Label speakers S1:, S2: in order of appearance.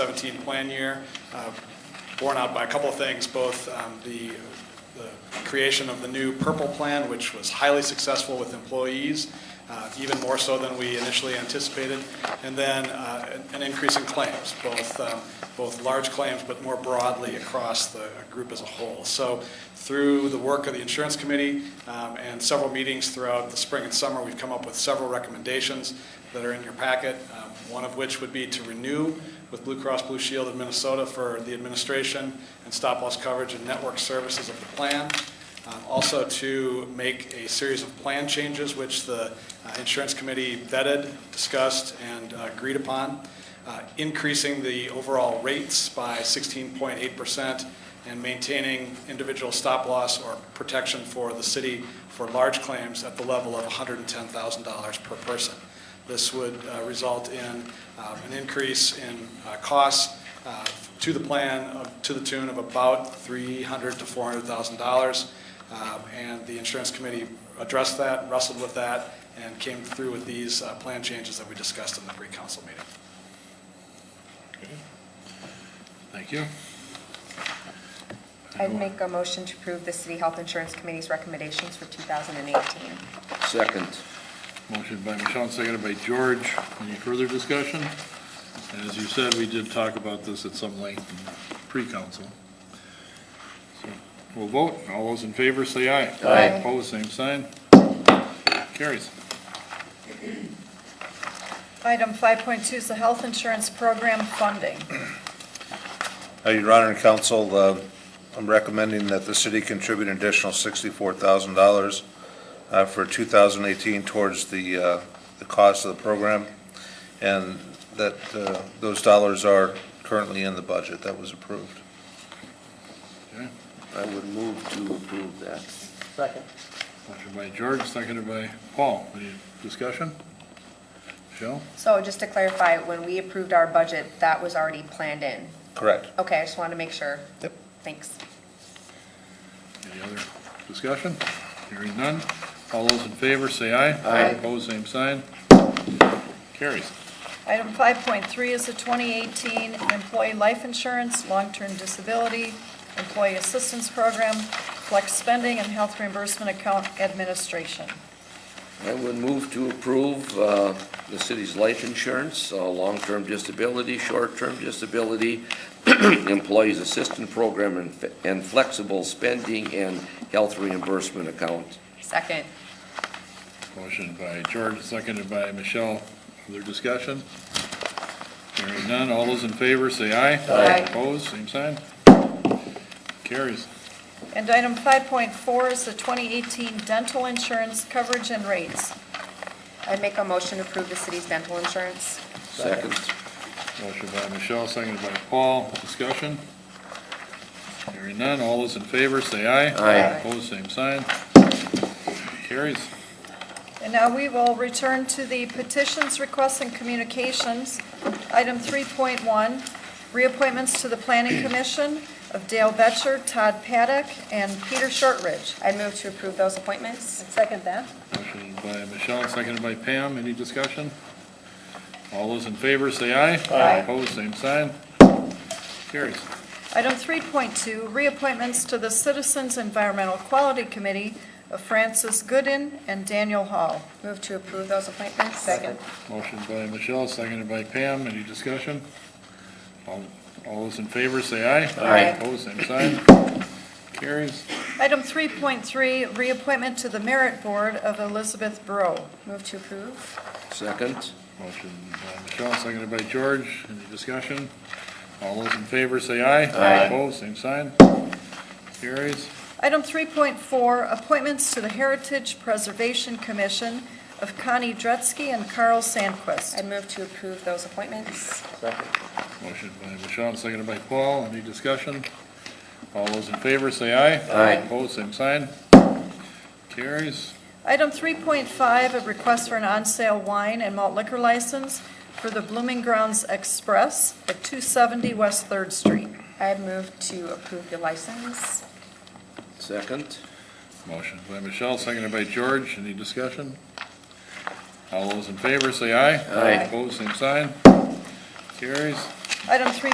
S1: 17 plan year, uh, borne out by a couple of things, both um, the the creation of the new purple plan, which was highly successful with employees, uh, even more so than we initially anticipated, and then uh, an an increase in claims, both, um, both large claims, but more broadly across the group as a whole. So through the work of the insurance committee um, and several meetings throughout the spring and summer, we've come up with several recommendations that are in your packet, um, one of which would be to renew with Blue Cross Blue Shield of Minnesota for the administration and stop-loss coverage and network services of the plan. Um, Also to make a series of plan changes, which the uh, insurance committee vetted, discussed, and uh, agreed upon, uh, increasing the overall rates by 16.8% and maintaining individual stop-loss or protection for the city for large claims at the level of $110,000 per person. This would uh, result in um, an increase in uh, costs uh, to the plan of- to the tune of about $300,000 to $400,000. Um, And the insurance committee addressed that, wrestled with that, and came through with these uh, plan changes that we discussed in the pre-council meeting.
S2: Thank you.
S3: I'd make a motion to approve the City Health Insurance Committee's recommendations for 2018.
S4: Second.
S2: Motion by Michelle, and seconded by George. Any further discussion? And as you said, we did talk about this at some length in pre-council. So We'll vote. All those in favor, say aye.
S3: Aye.
S2: Opposed, same sign. Carries.
S5: Item 5.2 is the health insurance program funding.
S6: Uh, Your Honor and Council, uh, I'm recommending that the city contribute an additional $64,000 uh, for 2018 towards the, uh, the cost of the program, and that uh, those dollars are currently in the budget that was approved.
S4: I would move to approve that.
S7: Second.
S2: Motion by George, seconded by Paul. Any discussion? Michelle?
S3: So just to clarify, when we approved our budget, that was already planned in.
S6: Correct.
S3: Okay, I just wanted to make sure.
S6: Yep.
S3: Thanks.
S2: Any other discussion? Hearing none. All those in favor, say aye.
S3: Aye.
S2: Opposed, same sign. Carries.
S5: Item 5.3 is the 2018 employee life insurance, long-term disability, employee assistance program, flex spending, and health reimbursement account administration.
S4: I would move to approve uh, the city's life insurance, uh, long-term disability, short-term disability, employees assistance program, and fe- and flexible spending and health reimbursement account.
S3: Second.
S2: Motion by George, seconded by Michelle. Other discussion? Hearing none. All those in favor, say aye.
S3: Aye.
S2: Opposed, same sign. Carries.
S5: And item 5.4 is the 2018 dental insurance coverage and rates.
S3: I'd make a motion to approve the city's dental insurance.
S4: Second.
S2: Motion by Michelle, seconded by Paul. Discussion? Hearing none. All those in favor, say aye.
S4: Aye.
S2: Opposed, same sign. Carries.
S5: And now we will return to the petitions, requests, and communications. Item 3.1, reappointments to the Planning Commission of Dale Vetcher, Todd Paddock, and Peter Shortridge.
S3: I'd move to approve those appointments.
S5: Second that.
S2: Motion by Michelle, seconded by Pam. Any discussion? All those in favor, say aye.
S3: Aye.
S2: Opposed, same sign. Carries.
S5: Item 3.2, reappointments to the Citizens Environmental Quality Committee of Francis Gooden and Daniel Hall.
S3: Move to approve those appointments. Second.
S2: Motion by Michelle, seconded by Pam. Any discussion? All all those in favor, say aye.
S3: Aye.
S2: Opposed, same sign. Carries.
S5: Item 3.3, reappointment to the Merit Board of Elizabeth Bro.
S3: Move to approve.
S4: Second.
S2: Motion by Michelle, seconded by George. Any discussion? All those in favor, say aye.
S3: Aye.
S2: Opposed, same sign. Carries.
S5: Item 3.4, appointments to the Heritage Preservation Commission of Connie Dretzky and Carl Sandquist.
S3: I'd move to approve those appointments.
S7: Second.
S2: Motion by Michelle, seconded by Paul. Any discussion? All those in favor, say aye.
S4: Aye.
S2: Opposed, same sign. Carries.
S5: Item 3.5, a request for an on-sale wine and malt liquor license for the Blooming Grounds Express at 270 West Third Street.
S3: I'd move to approve the license.
S4: Second.
S2: Motion by Michelle, seconded by George. Any discussion? All those in favor, say aye.
S4: Aye.
S2: Opposed, same sign. Carries.
S5: Item 3.